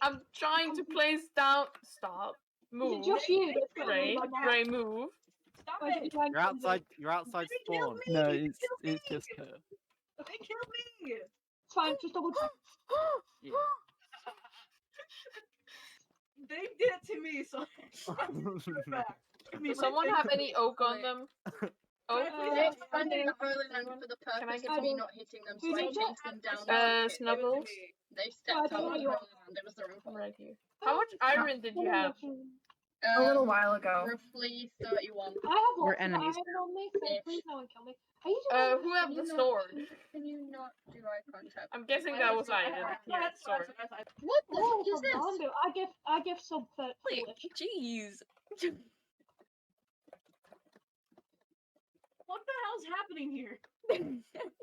I'm trying to place down. Stop. Move. just you that's gonna Ray, move on now. Ray, move. Stop it. You're outside. You're outside They killed me, spawn. No, they it's killed me. it's just her. They killed me. It's fine, just double check. Yeah. They did it to me, so I had to do it back. Give me my Does someone thing have back. any oak on them? Oak? I please They're have someone expanding the Holy Land for the Can I purpose get of some- not hitting them, so Who's I it? chased them down. Uh, with it. Give it to Snubbles? me. They stepped I on don't the Holy know. Land. It was the wrong I'm colour. right here. How much iron did you have? Um, A little while ago. Roughly 31. I have We're lots of enemies iron on me, so Ish. please no one kill me. Are you doing Uh, this? who have Can the you not- sword? Can you not do eye contact? I'm guessing Why that was would you- iron. I- I- Yeah, that's what I sorry. was- I- I- What the Oh, heck is this? Fernando, I give I give sub thirty. Wait, foolish. jeez. What the hell's happening here?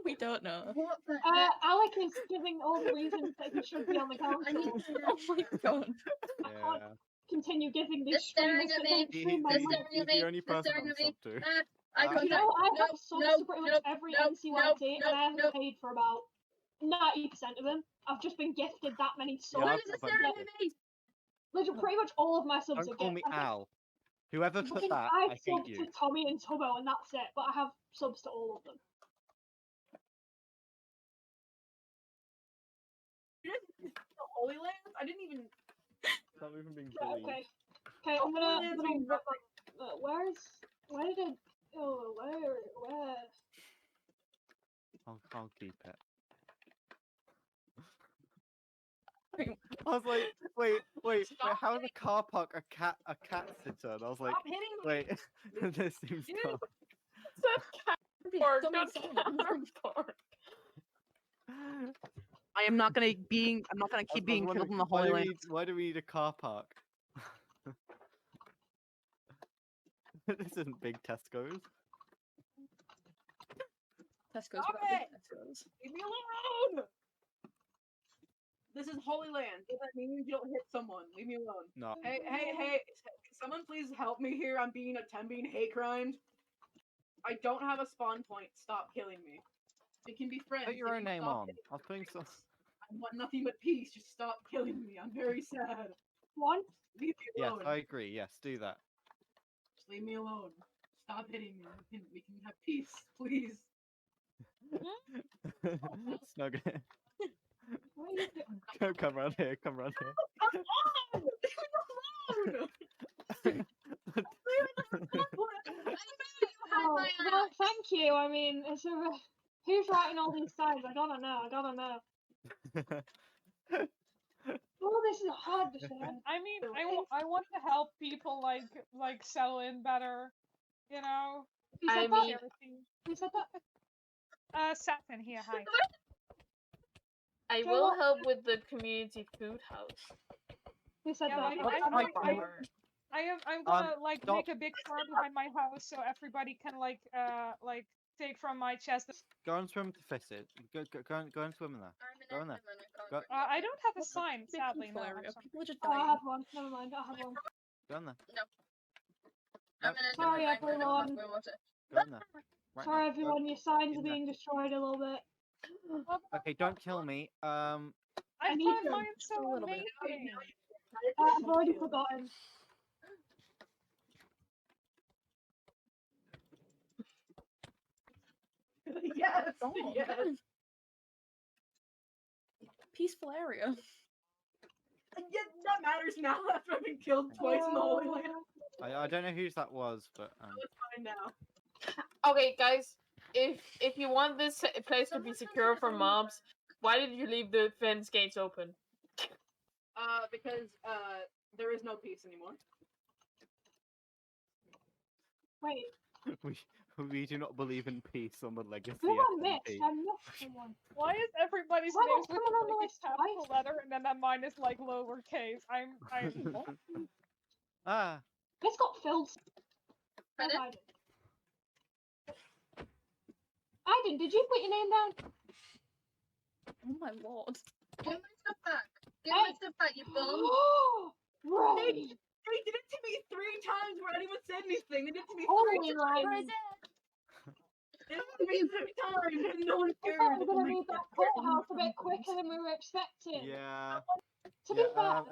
we don't know. What the Uh, heck? Alec is giving all the reasons that he should be on the I need council. to know. Oh my god. I can't continue giving They're these staring streamers at that me. don't He- He, stream my they're he's, stuff. staring he's at me, the only they're person staring I'm at me. sub to. Uh, eye You contact. You know, I No, have subs no, to pretty much no, every no, NCYT, no, and I haven't no. paid for about ninety percent of them. I've just been gifted that many subs. Why I've is it got staring my at me? Literally, pretty much all of my subs are Don't call me gifted. I've Al. Whoever put fucking- that, I've I subbed hate you. to Tommy and Tubbo, and that's it. But I have subs to all of them. You guys did the Holy Land? I didn't even. Not even being Right, bullied. okay. Okay, I'm gonna. Well, I'm it's gonna been rip up- uh, where is? Where did I? Oh, where? Where? I'll, I'll keep it. Wait. I was like, wait, wait, wait Stop how in a car park a cat a cat sitter? And I was like, Stop hitting me. wait, this seems Dude. dumb. Or Someone- not someone- Or- I am not gonna being. I'm not gonna I was- I was keep being wondering, killed in the why Holy do we Land. need- Why do we need a car park? this isn't big Tesco's. Tesco's Stop better it! than Tesco's. Leave me alone! This is Holy Land. Does that mean you don't hit someone? Leave me alone. No, Hey, hey, hey! s- can Someone please help me here. I'm being attempting hate crimes. I don't have a spawn point. Stop killing me. They can be friends. put they your own can name stop on. hitting I was putting some. me. I want nothing but peace. Just stop killing me. I'm very sad. One. Leave me Yes, alone. I agree. Yes, do that. Just leave me alone. Stop hitting me. We can, we can have peace, please. Oh, Snug it. What are you doing? Come, come round here. Come round here. Come on! Leave me alone! Leave me alone! Oh, I know, you had my well, eye. thank you. I mean, it's a, who's writing all these signs? I gotta know. I gotta know. All Oh, this is hard to say. I mean, So I, wa- I want to help people like like settle in better, you know. Who I said mean- that? Who said that? Uh, Satin here, hi. I So will what- help with the community food house. Who said Yeah, that? like, What I, am I I, I, I am I'm gonna like Um, stop. make a big farm behind my house so everybody can like uh like take from my chest. Go and swim to fish it. Go, go, go, and, go and swim in there. I'm an Go on admin then. and I can't Go- read Uh, I don't have a What's the sign, Making sadly. No, I'm Flower. sorry. People are just Oh, I dying. have one. Never mind. I have one. Go in there. I'm an Sorry, admin and I can't read everyone. my water. Go in there. Right now. Sorry, Go- everyone. Your signs are in there. being destroyed a little bit. Okay, don't kill me. Um, I need found them mine so little bit. amazing. Uh, I've already forgotten. yes, Oh, yes. God. Peaceful area. And yet that matters now after I've been killed twice in the Holy Land. Oh. I, I don't know whose that was, but um, Fine now. Okay, guys, if if you want this s- place to Someone be tell me secure if from I'm- mobs, why did you leave the fence gates open? Uh, because uh, there is no peace anymore. Wait, we we do not believe in peace on the legacy. who I SNP. missed? I missed someone. Why is everybody's Why names don't with someone on the like, list a capital twice? letter and then that mine is like lowercase? I'm I'm ah, This got filled. I Pardon? died. Aiden, did you put your name down? Oh my lord. Give my stuff back. Give my Hey. stuff back, you bum. Ray! They did it to me three times where anyone said anything. They did it to me three Holy times. Ray! They did it to me three times and no one I cared. thought we were Oh gonna my need that God. courthouse a bit quicker than we were expecting. yeah. To be yeah, fair, um,